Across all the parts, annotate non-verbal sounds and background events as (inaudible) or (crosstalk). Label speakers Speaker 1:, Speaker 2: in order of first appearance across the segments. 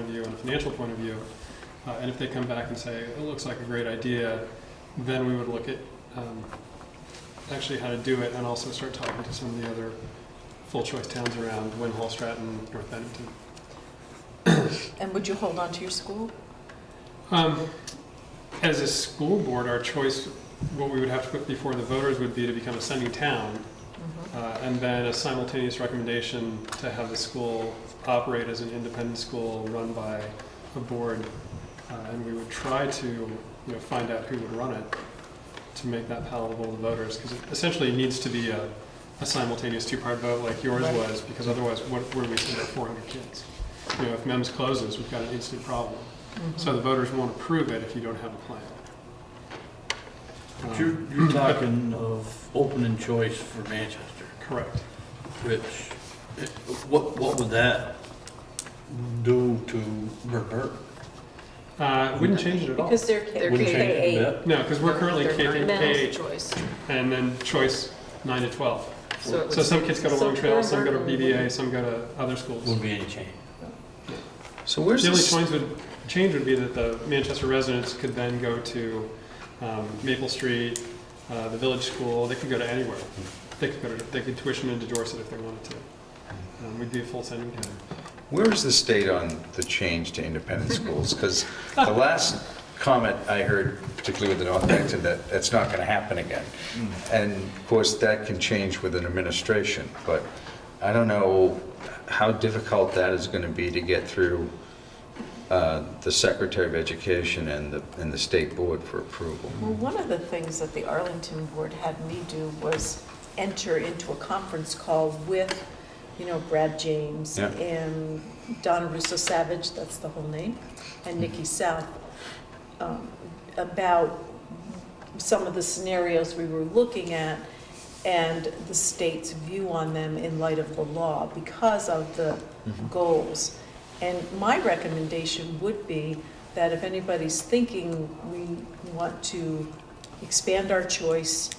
Speaker 1: a financial point of view. Uh, And if they come back and say, it looks like a great idea, then we would look at um, actually how to do it and also start talking to some of the other full-choice towns around, Win, Hall, Stratton, North Bennington.
Speaker 2: And would you hold on to your school?
Speaker 1: Um, As a school board, our choice, what we would have to put before the voters would be to become a sending town,
Speaker 2: Mm-hmm.
Speaker 1: uh, and then a simultaneous recommendation to have the school operate as an independent school run by a board, uh, and we would try to, you know, find out who would run it to make that palatable to voters, because it essentially needs to be a, a simultaneous two-part vote like yours
Speaker 2: Right.
Speaker 1: was, because otherwise, what, where do we send our four hundred kids? You know, if MEMS closes, we've got an instant problem. So the voters won't approve it if you don't have a plan.
Speaker 3: But
Speaker 1: Um,
Speaker 3: You're, you're talking of open and choice for Manchester,
Speaker 1: Correct.
Speaker 3: which, eh, what, what would that do to Burton?
Speaker 1: Uh, it Wouldn't change it at all.
Speaker 2: Because they're
Speaker 4: They're
Speaker 2: kids.
Speaker 3: Wouldn't change it
Speaker 4: K
Speaker 3: a bit.
Speaker 1: No, because we're currently
Speaker 4: They're
Speaker 1: K through
Speaker 2: Mental
Speaker 1: K,
Speaker 2: choice.
Speaker 1: and then choice nine to 12.
Speaker 4: So it
Speaker 1: So
Speaker 4: was,
Speaker 1: some kids go to
Speaker 2: So
Speaker 1: Long Trail, some go to
Speaker 2: Thornburton-
Speaker 1: BBA, some go to other schools.
Speaker 3: Wouldn't be any change.
Speaker 5: So where's
Speaker 1: The only
Speaker 5: this,
Speaker 1: change would, change would be that the Manchester residents could then go to um, Maple Street, uh, the Village School, they could go to anywhere. They could go to, they could tuition into Dorset if they wanted to. Um, We'd be a full sending town.
Speaker 5: where is the state on the change to independent schools? Because the last comment I heard, particularly with the North Bennington, that that's not going to happen again. And of course, that can change with an administration, but I don't know how difficult that is going to be to get through uh, the Secretary of Education and the, and the State Board for approval.
Speaker 2: Well, one of the things that the Arlington Board had me do was enter into a conference call with, you know, Brad James
Speaker 5: Yeah.
Speaker 2: and Donna Russo Savage, that's the whole name, and Nikki South, um, about some of the scenarios we were looking at and the state's view on them in light of the law because of the goals. And my recommendation would be that if anybody's thinking we want to expand our choice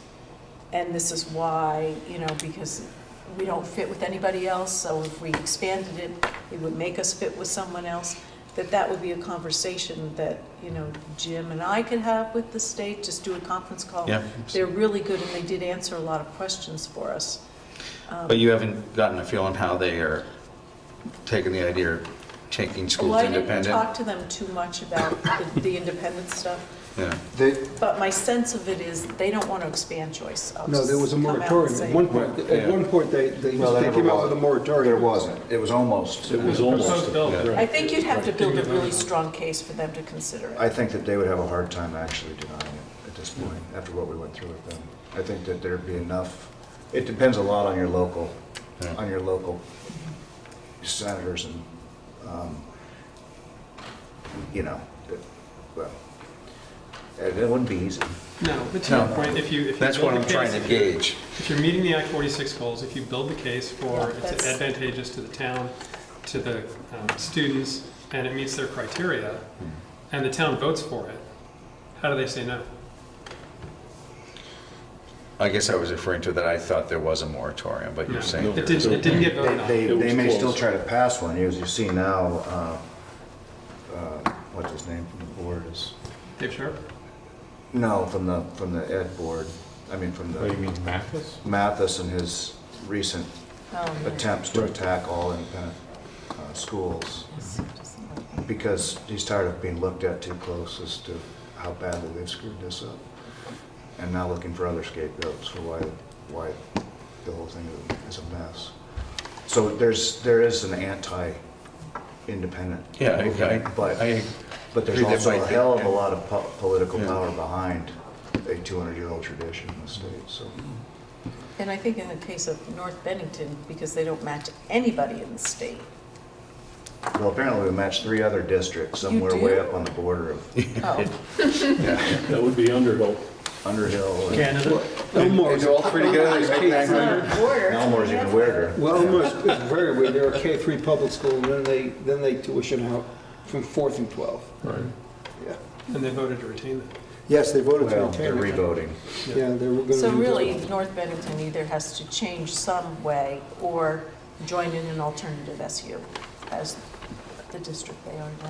Speaker 2: and this is why, you know, because we don't fit with anybody else, so if we expanded it, it would make us fit with someone else, that that would be a conversation that, you know, Jim and I could have with the state, just do a conference call.
Speaker 5: Yeah.
Speaker 2: They're really good and they did answer a lot of questions for us. Um,
Speaker 5: But you haven't gotten a feel on how they are taking the idea of taking schools
Speaker 2: Well, I didn't
Speaker 5: independent?
Speaker 2: talk to them too much about the- the independent stuff,
Speaker 5: Yeah.
Speaker 6: They,
Speaker 2: but my sense of it is they don't want to expand choice. I'll
Speaker 7: No, there
Speaker 2: just
Speaker 7: was a
Speaker 2: come out and
Speaker 7: moratorium.
Speaker 2: say
Speaker 7: At
Speaker 2: it.
Speaker 7: one point,
Speaker 5: Yeah.
Speaker 7: at one point, they, they
Speaker 6: Well, there
Speaker 7: they came out
Speaker 6: was.
Speaker 7: with a moratorium.
Speaker 6: there wasn't, it was almost.
Speaker 3: It was
Speaker 1: Proposed
Speaker 3: almost.
Speaker 1: bill.
Speaker 5: yeah.
Speaker 2: I think you'd have to build a really strong case for them to consider it.
Speaker 6: I think that they would have a hard time actually denying it at this point, after what we went through with them. I think that there'd be enough, it depends a lot on your local,
Speaker 5: Yeah.
Speaker 6: on your local senators and, um, you know, it- well, it it wouldn't be easy.
Speaker 1: No, but to your
Speaker 5: No.
Speaker 1: point, if you, if you
Speaker 5: That's what
Speaker 1: build
Speaker 5: I'm
Speaker 1: the
Speaker 5: trying
Speaker 1: case-
Speaker 5: to gauge.
Speaker 1: If you're meeting the Act 46 goals, if you build the case for
Speaker 2: Yeah,
Speaker 1: it's
Speaker 2: that's-
Speaker 1: advantageous to the town, to the um, students, and it meets their criteria,
Speaker 5: Hmm.
Speaker 1: and the town votes for it, how do they say no?
Speaker 5: I guess I was referring to that I thought there was a moratorium, but
Speaker 1: No.
Speaker 5: you're saying
Speaker 1: It
Speaker 5: there
Speaker 1: didn't, it didn't get
Speaker 6: They,
Speaker 1: voted on.
Speaker 6: they-
Speaker 3: It was
Speaker 6: they may still
Speaker 3: close.
Speaker 6: try to pass one, as you see now, uh, uh, what's his name from the board is,
Speaker 1: Dave Sharp?
Speaker 6: no, from the, from the ed board, I mean, from
Speaker 5: Oh,
Speaker 6: the.
Speaker 8: mean Mathis?
Speaker 6: Mathis and his recent
Speaker 2: Oh, yeah.
Speaker 6: attempts to attack all independent uh, schools
Speaker 2: Yes, it doesn't work.
Speaker 6: because he's tired of being looked at too close as to how badly they've screwed this up. And now looking for other scapegoats for why, why the whole thing is a mess. So there's, there is an anti-independent.
Speaker 5: Yeah, I- I-
Speaker 6: movement, But,
Speaker 5: I
Speaker 6: but there's
Speaker 5: agree that
Speaker 6: also a
Speaker 5: might be-
Speaker 6: hell of a lot of po- political
Speaker 5: Yeah.
Speaker 6: power behind a 200-year-old tradition in the state, so.
Speaker 2: And I think in the case of North Bennington, because they don't match anybody in the
Speaker 6: (laughs)
Speaker 2: state.
Speaker 6: Well, apparently we matched three other districts somewhere way
Speaker 2: do?
Speaker 6: up on the border of
Speaker 2: Oh,
Speaker 3: That would be Underhill.
Speaker 6: Underhill. and-
Speaker 3: Canada.
Speaker 7: Elmore's,
Speaker 6: They do all three together, they make
Speaker 2: it's not a
Speaker 6: 900.
Speaker 2: border.
Speaker 6: Elmore's even weirder.
Speaker 7: well, Elmore's is very weird. They're a K-3 public school, and then they, then they tuition out from 4 through 12.
Speaker 8: Right.
Speaker 7: Yeah.
Speaker 1: And they voted to retain it.
Speaker 7: Yes, they voted to
Speaker 6: Well, they're
Speaker 7: retain it.
Speaker 6: revoting.
Speaker 7: Yeah, they were going to.
Speaker 2: So really, North Bennington either has to change some way or join in an alternative SU as the district they are now.